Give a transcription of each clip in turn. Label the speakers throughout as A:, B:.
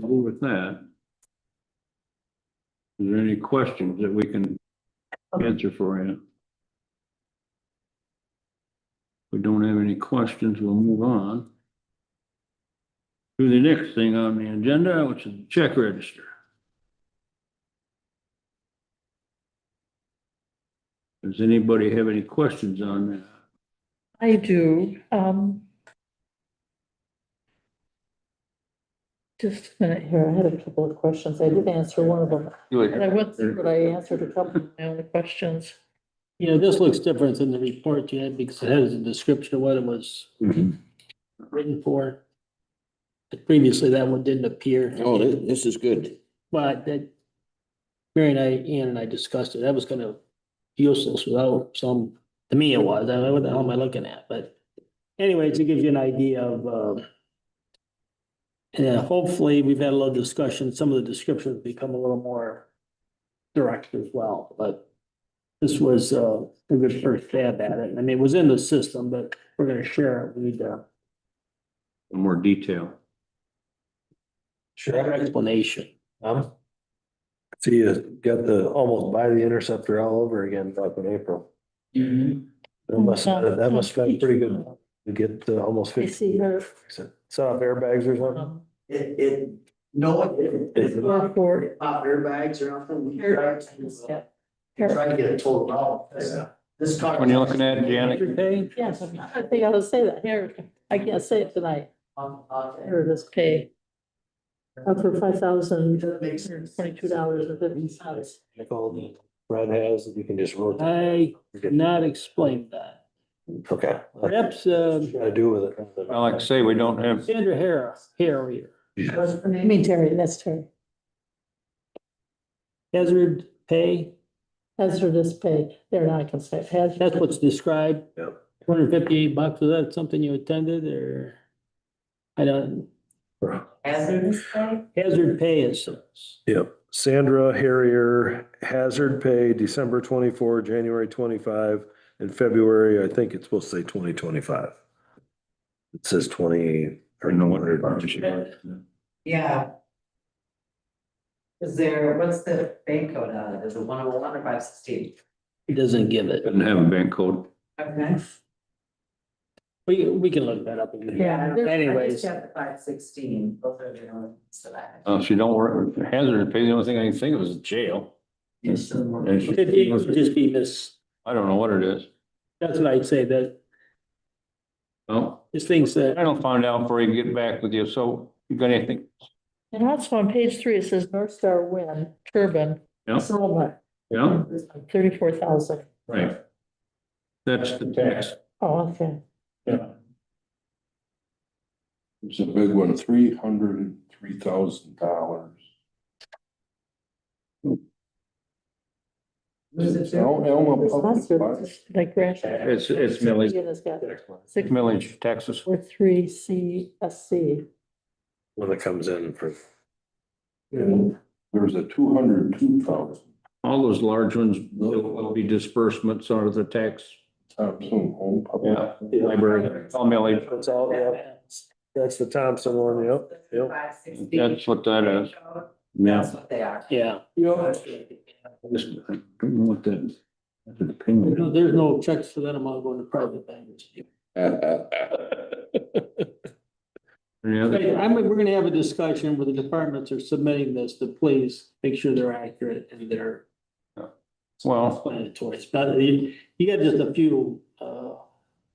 A: comfortable with that. Is there any questions that we can answer for you? If we don't have any questions, we'll move on. To the next thing on the agenda, which is the check register. Does anybody have any questions on that?
B: I do, um. Just a minute here, I had a couple of questions, I did answer one of them, and I went through, but I answered a couple of my own questions.
C: Yeah, this looks different than the report you had because it has a description of what it was
A: Mhm.
C: written for. But Previously, that one didn't appear.
D: Oh, thi- this is good.
C: But that, Mary and I, Ian and I discussed it, that was kind of useless without some, to me it was, I don't know what the hell am I looking at, but anyway, to give you an idea of, um, yeah, hopefully, we've had a little discussion, some of the descriptions become a little more direct as well, but this was, uh, a good first stab at it, I mean, it was in the system, but we're gonna share it, we need uh,
A: More detail.
E: Sure.
C: explanation.
E: Um, So you got the, almost buy the interceptor all over again back in April. That must, uh, that must have been pretty good to get to almost
B: Um, I
E: fifty.
B: see her,
E: Set off airbags or something.
B: um,
F: It, it, no, it, it's not
B: for,
F: pop airbags or nothing. We tried to,
B: yeah,
F: uh, Try to get it total out. This- This car.
A: When you're looking at it, Janet,
C: Pay?
B: yes, I think I will say that, here, I can't say it tonight,
F: Um, uh,
B: here it is, pay. Uh, for five thousand,
F: That makes sense.
B: twenty-two dollars and fifty cents.
E: Like all the Brad has, you can just rotate.
B: Uh,
C: I could not explain that,
E: Okay.
C: perhaps,
B: um,
C: uh,
E: Got to do with it.
A: well, like I say, we don't have,
C: Sandra Hara, Harrier,
B: I mean, Terry, that's Terry,
C: hazard pay,
B: hazardous pay, there, now I can say it, hazardous.
C: that's what's described.
E: Yep.
C: Two hundred fifty-eight bucks, was that something you attended or? I don't,
F: Hazardous thing?
C: hazard pay is,
E: Yep. Sandra Harrier, hazard pay, December twenty-four, January twenty-five, and February, I think it's supposed to say twenty twenty-five. It says twenty.
A: I
E: or
A: don't know what it
G: Yeah. Is there, what's the bank code on it? Is it one oh one or five sixteen?
C: it doesn't give it.
A: doesn't have a bank code.
G: Okay.
C: We, we can look that up. again. Anyways,
G: Five sixteen, both are the ones that I had.
A: Uh, if you don't work, hazard pay, the only thing I can think of is jail.
F: Yes.
C: it it would just be this,
A: I don't know what it is.
C: that's what I'd say, that,
A: Well,
C: this thing's
A: I
C: that,
A: don't find out before you get back with you, so you got anything?
B: And also on page three, it says North Star Wind Turbine.
A: Yeah.
B: Solar,
A: Yeah,
B: thirty-four thousand.
A: right. That's the tax.
B: Oh, okay.
A: Yeah.
D: It's a big one, three hundred and three thousand dollars.
G: Was it there?
D: Elma Elma
B: That's
D: Public
B: your-
D: Parks.
B: Like Grant.
A: It's, it's millage,
B: It's got six
A: millage taxes.
B: four three C S C.
E: When it comes in for.
D: And There's a two hundred and two thousand,
A: All those large ones will will be disbursements out of the tax
D: Thompson Home Public.
A: Yeah. library. It's all millage.
E: That's all, yeah. That's the Thompson one, yep, yep.
G: Five sixteen.
A: That's what that is.
G: That's what they are.
C: yeah.
A: Just, I don't know what that. That's an opinion.
C: No, There's no checks for that amount going to private banks.
A: Any other-
C: Right, I'm, we're gonna have a discussion where the departments are submitting this to please make sure they're accurate and they're
A: Well,
C: explanatory. It's not- you, you got just a few, uh,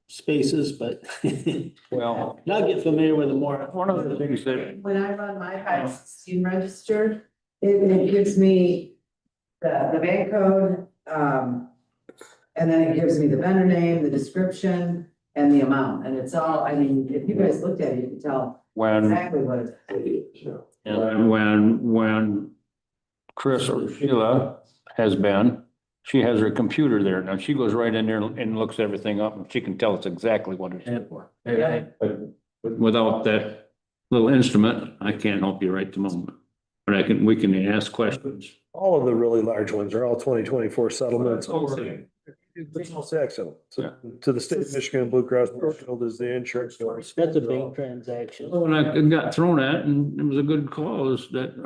C: spaces, but
A: well,
C: now get familiar with the more.
A: one of the things that,
G: When I run my five sixteen registered, it, it gives me the, the bank code, um, and then it gives me the vendor name, the description, and the amount, and it's all, I mean, if you guys looked at it, you could tell
A: when
G: exactly what it's.
A: And when, when Chris or Sheila has been, she has her computer there. Now she goes right in there and looks everything up and she can tell us exactly what it is.
G: Yeah.
A: But Without that little instrument, I can't help you right the moment. But I can, we can ask questions.
E: All of the really large ones are all twenty twenty-four settlements.
A: Over.
E: Regional tax sale. So,
A: Yeah.
E: to the state of Michigan, Blue Cross Blue Shield is the insurance.
A: Oh,
C: That's a big transaction.
A: When I got thrown at and it was a good cause that